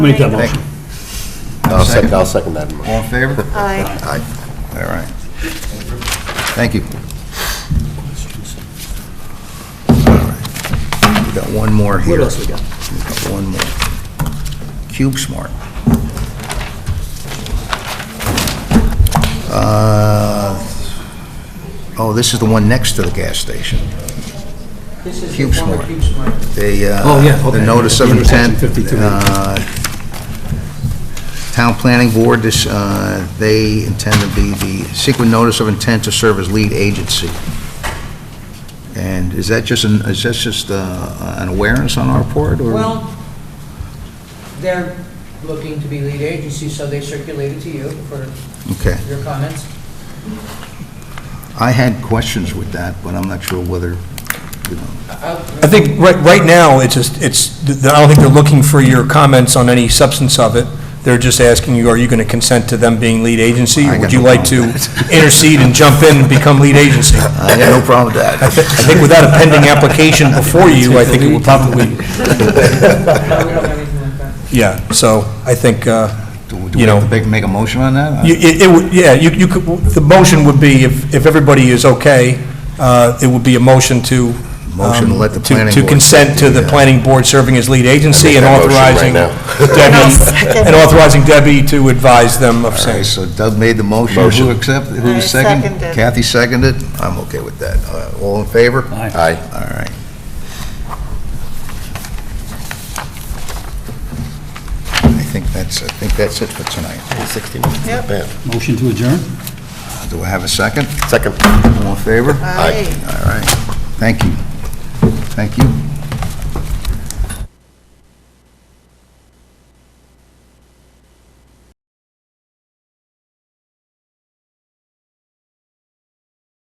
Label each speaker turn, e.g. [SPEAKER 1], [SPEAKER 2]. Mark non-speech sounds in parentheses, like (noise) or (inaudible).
[SPEAKER 1] Make that
[SPEAKER 2] Thank you.
[SPEAKER 1] motion.
[SPEAKER 3] I'll second, I'll second that motion.
[SPEAKER 2] All in favor?
[SPEAKER 4] Aye.
[SPEAKER 2] Aye. All right. Thank you. we got one more here.
[SPEAKER 1] What else we got?
[SPEAKER 2] we got one more. Cube Smart. Uh, Oh, this is the one next to the gas station.
[SPEAKER 5] This is
[SPEAKER 2] Cube
[SPEAKER 5] the former
[SPEAKER 2] Smart.
[SPEAKER 5] Cube Smart.
[SPEAKER 2] They, uh...
[SPEAKER 1] Oh, yeah, okay.
[SPEAKER 2] The notice of
[SPEAKER 1] Intersection
[SPEAKER 2] intent,
[SPEAKER 1] 52.
[SPEAKER 2] uh, Town Planning Board, this, uh, they intend to be the, seeking notice of intent to serve as lead agency. And is that just, an is that just uh, an awareness on our part, or?
[SPEAKER 5] Well, they're looking to be lead agency, so they circulated to you for
[SPEAKER 2] Okay.
[SPEAKER 5] your comments.
[SPEAKER 2] I had questions with that, but I'm not sure whether, you know,
[SPEAKER 6] I think right, right now, it's just, it's, I don't think they're looking for your comments on any substance of it. They're just asking you, are you going to consent to them being lead agency?
[SPEAKER 2] I got
[SPEAKER 6] Would you
[SPEAKER 2] no
[SPEAKER 6] like to
[SPEAKER 2] problem with that. (laughs)
[SPEAKER 6] intercede and jump in and become lead agency? I
[SPEAKER 2] I got no problem with that.
[SPEAKER 6] think without a pending application before you, I think it would probably,
[SPEAKER 5] No, we don't have anything like that.
[SPEAKER 6] yeah, so I think, uh,
[SPEAKER 2] Do we-
[SPEAKER 6] You know.
[SPEAKER 2] Do we have to make a motion on that?
[SPEAKER 6] you- it, it would, yeah, you, you could, the motion would be, if, if everybody is okay, uh, it would be a motion to. um,
[SPEAKER 2] Motion to let the planning
[SPEAKER 6] To
[SPEAKER 2] board-
[SPEAKER 6] consent to the
[SPEAKER 2] Yeah.
[SPEAKER 6] planning board serving as lead agency and
[SPEAKER 3] that motion right
[SPEAKER 6] authorizing
[SPEAKER 3] now.
[SPEAKER 6] Debbie, and authorizing Debbie to advise them of
[SPEAKER 2] Okay,
[SPEAKER 6] saying.
[SPEAKER 2] so Doug made the motion.
[SPEAKER 3] Motion.
[SPEAKER 2] Who accept, who
[SPEAKER 4] I
[SPEAKER 2] seconded?
[SPEAKER 4] seconded.
[SPEAKER 2] Kathy seconded. I'm okay with that. Uh, All in favor?
[SPEAKER 1] Aye.
[SPEAKER 3] Aye.
[SPEAKER 2] All right. I think that's, I think that's it for tonight.
[SPEAKER 3] 60 minutes, not bad.
[SPEAKER 1] Motion to adjourn?
[SPEAKER 2] Do I have a second?
[SPEAKER 3] Second.
[SPEAKER 2] All in favor?
[SPEAKER 4] Aye.
[SPEAKER 2] All right. Thank you. Thank you.